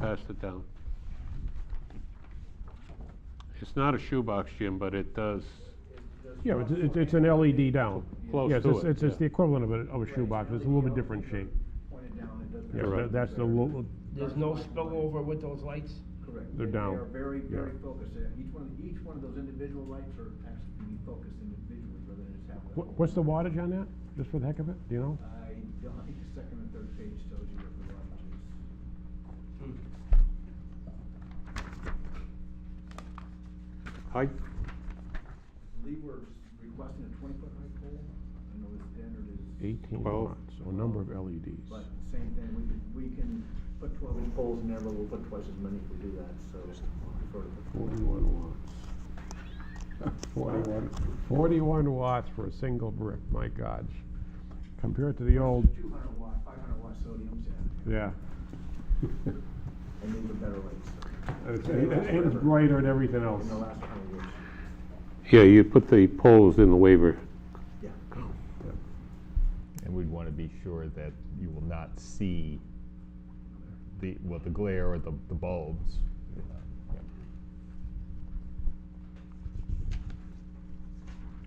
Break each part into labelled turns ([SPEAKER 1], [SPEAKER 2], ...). [SPEAKER 1] Pass it down. It's not a shoebox, Jim, but it does,
[SPEAKER 2] Yeah, it's, it's- it's an LED down.
[SPEAKER 1] Close
[SPEAKER 2] Yeah, it's
[SPEAKER 1] to
[SPEAKER 2] just-
[SPEAKER 1] it,
[SPEAKER 2] It's, it's
[SPEAKER 1] yeah.
[SPEAKER 2] the equivalent of a, of a shoebox, it's a little bit different shape.
[SPEAKER 3] Pointed down, it doesn't.
[SPEAKER 2] Yeah,
[SPEAKER 1] You're
[SPEAKER 2] tha-
[SPEAKER 1] right.
[SPEAKER 2] that's the, lo-
[SPEAKER 4] There's no spillover with those lights?
[SPEAKER 3] Correct.
[SPEAKER 2] They're
[SPEAKER 3] They-
[SPEAKER 2] down.
[SPEAKER 3] They are very,
[SPEAKER 2] Yeah.
[SPEAKER 3] very focused. They're- Each one, of the- each one of those individual lights are actually can be focused individually rather than just having.
[SPEAKER 2] wha- what's the wattage on that, just for the heck of it, do you know?
[SPEAKER 3] I don't, I think the second and third page tells you what the wattage is.
[SPEAKER 1] height,
[SPEAKER 3] I believe we're requesting a twenty-foot high pole. I know the standard is,
[SPEAKER 2] Eighteen
[SPEAKER 1] Twelve.
[SPEAKER 2] watts, so a number of E LEDs.
[SPEAKER 3] but same thing, we can, we can put twelve inch poles in there, but we'll put twice as many if we do that, so. I'll refer to the-
[SPEAKER 2] Forty-one watts. Forty-one, forty-one watts for a single brick, my gosh. Compared to the old,
[SPEAKER 3] Two hundred watt, five hundred watt sodiums, yeah,
[SPEAKER 2] yeah.
[SPEAKER 3] and these are better lights.
[SPEAKER 2] And It's and it's brighter and everything else.
[SPEAKER 3] In the last twenty years,
[SPEAKER 1] yeah, you put the poles in the waiver.
[SPEAKER 3] yeah.
[SPEAKER 5] And we'd want to be sure that you will not see the, well, the glare or the the bulbs.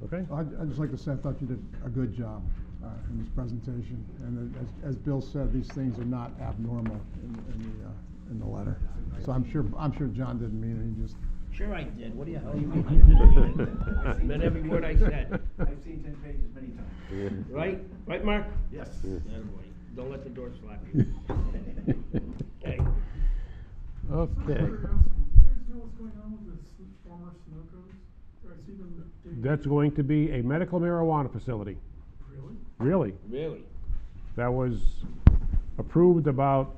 [SPEAKER 2] Okay,
[SPEAKER 6] I'd, I'd just like to say, I thought you did a good job uh, in this presentation, and that as, as Bill said, these things are not abnormal in, in the, uh, in the letter. So I'm sure, I'm sure John didn't mean it, he just,
[SPEAKER 4] Sure I did, what do you, how do you mean I did? Meant every word I said,
[SPEAKER 3] I've seen ten pages many times.
[SPEAKER 4] right? Right, Mark?
[SPEAKER 3] Yes.
[SPEAKER 4] Attaboy. Don't let the door slap you. Okay.
[SPEAKER 7] Can
[SPEAKER 1] Okay.
[SPEAKER 7] you guys know what's going on with the s- former Sunoco's? I see them, they,
[SPEAKER 2] that's going to be a medical marijuana facility,
[SPEAKER 7] really?
[SPEAKER 2] really.
[SPEAKER 4] Really?
[SPEAKER 2] that was approved about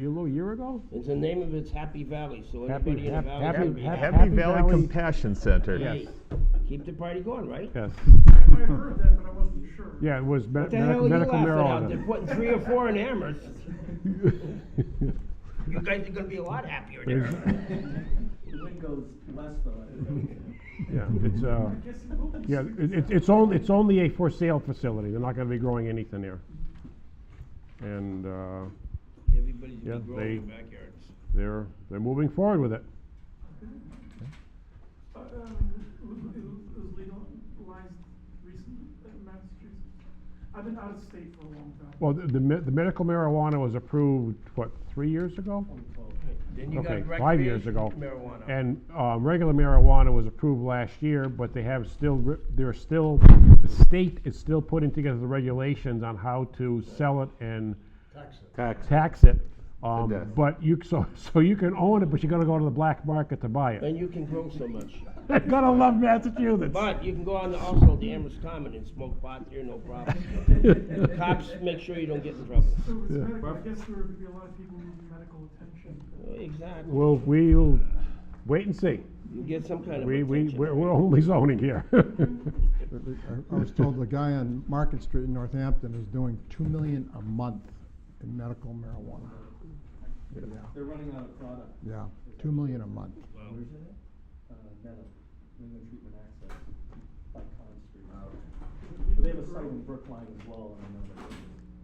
[SPEAKER 2] a little year ago?
[SPEAKER 4] It's the name of it's Happy Valley, so
[SPEAKER 2] Happy-
[SPEAKER 4] anybody in the
[SPEAKER 2] hap-
[SPEAKER 4] valley.
[SPEAKER 2] happy-
[SPEAKER 4] can be
[SPEAKER 2] hap-
[SPEAKER 5] Happy Valley Compassion Center.
[SPEAKER 4] Hey, Keep the party going, right?
[SPEAKER 2] Yes.
[SPEAKER 7] I, I heard that, but I wasn't sure.
[SPEAKER 2] Yeah, it was me-
[SPEAKER 4] What the hell are
[SPEAKER 2] medical
[SPEAKER 4] you
[SPEAKER 2] medical
[SPEAKER 4] laughing at? They're
[SPEAKER 2] marijuana.
[SPEAKER 4] putting three or four in Amherst. You guys are gonna be a lot happier there.
[SPEAKER 3] The wind goes west though.
[SPEAKER 2] Yeah, it's, uh,
[SPEAKER 7] I guess it will be.
[SPEAKER 2] yeah, it, it- it's only, it's only a for sale facility. They're not gonna be growing anything there. And, uh,
[SPEAKER 4] Everybody's
[SPEAKER 2] Yeah,
[SPEAKER 4] gonna be growing in
[SPEAKER 2] they-
[SPEAKER 4] their backyards.
[SPEAKER 2] they're, they're moving forward with it.
[SPEAKER 7] Uh, um, it was it was legalized recently in Massachusetts. I've been out of state for a long time.
[SPEAKER 2] Well, the, the me- the medical marijuana was approved, what, three years ago?
[SPEAKER 4] Then you
[SPEAKER 2] Okay,
[SPEAKER 4] got
[SPEAKER 2] five years
[SPEAKER 4] recreational
[SPEAKER 2] ago.
[SPEAKER 4] marijuana.
[SPEAKER 2] And uh, regular marijuana was approved last year, but they have still, re- they're still, the state is still putting together the regulations on how to sell it and
[SPEAKER 1] Tax,
[SPEAKER 2] tax it. Um,
[SPEAKER 1] death.
[SPEAKER 2] But you, so, so you can own it, but you gotta go to the black market to buy it.
[SPEAKER 4] Then you can grow so much.
[SPEAKER 2] You're gonna love Massachusetts.
[SPEAKER 4] But you can go on to also the Amherst Common and smoke pot there, no problem. Cops, make sure you don't get in trouble.
[SPEAKER 7] So it's medical, I guess there would be a lot of people needing medical attention.
[SPEAKER 4] Exactly.
[SPEAKER 2] Well, we'll wait and see.
[SPEAKER 4] You get some kind of
[SPEAKER 2] We, we,
[SPEAKER 4] attention.
[SPEAKER 2] we're we're only zoning here.
[SPEAKER 6] I I was told the guy on Market Street in Northampton is doing two million a month in medical marijuana. Yeah,
[SPEAKER 3] They're running out of product,
[SPEAKER 6] yeah, two million a month.
[SPEAKER 3] Oh. uh, metal, New England Treatment Access by Con Street. But They have a site in Brookline as well, and I know that.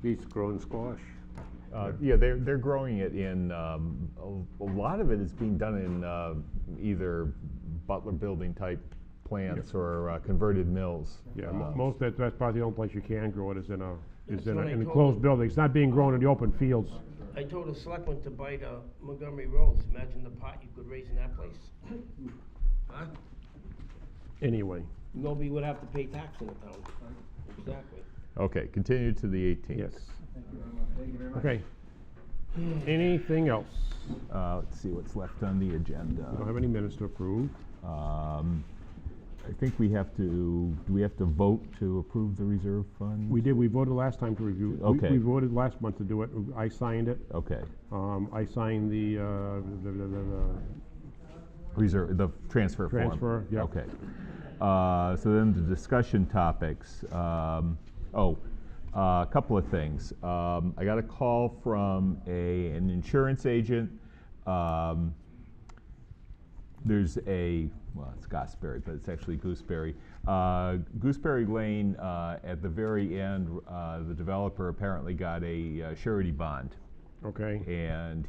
[SPEAKER 1] beets growing squash.
[SPEAKER 5] Uh, Yeah, they're, they're growing it in, um, a a lot of it is being done in uh, either Butler Building type plants or uh, converted mills.
[SPEAKER 2] Yeah,
[SPEAKER 5] Uh,
[SPEAKER 2] mo- most, that's, that's probably the only place you can grow it is in a, is
[SPEAKER 4] That's
[SPEAKER 2] in a-
[SPEAKER 4] what I
[SPEAKER 2] in
[SPEAKER 4] told
[SPEAKER 2] enclosed
[SPEAKER 4] them.
[SPEAKER 2] building. It's not being grown in the open fields.
[SPEAKER 4] I told a selectman to bite uh, Montgomery Rolls. Imagine the pot you could raise in that place. Huh?
[SPEAKER 2] Anyway,
[SPEAKER 4] Nobody would have to pay tax in the town. Exactly.
[SPEAKER 5] Okay, continue to the 18th.
[SPEAKER 2] yes.
[SPEAKER 3] Thank you very much. Thank you very much.
[SPEAKER 2] Okay. Anything else?
[SPEAKER 5] Uh, Let's see what's left on the agenda.
[SPEAKER 2] Don't have any minutes to approve.
[SPEAKER 5] Um, I think we have to, do we have to vote to approve the reserve fund?
[SPEAKER 2] We did, we voted last time to review. we-
[SPEAKER 5] Okay.
[SPEAKER 2] We voted last month to do it. I signed it.
[SPEAKER 5] Okay,
[SPEAKER 2] Um, I signed the, uh, the- the- the- the-
[SPEAKER 5] reserve, uh, the transfer form.
[SPEAKER 2] Transfer, yeah.
[SPEAKER 5] Okay. Uh, So then the discussion topics, um, oh, a couple of things. Um, I got a call from a, an insurance agent. Um, there's a, well, it's Gosberry, but it's actually Gooseberry. Uh, Gooseberry Lane, uh, at the very end, uh, the developer apparently got a uh, surety bond,
[SPEAKER 2] okay.
[SPEAKER 5] and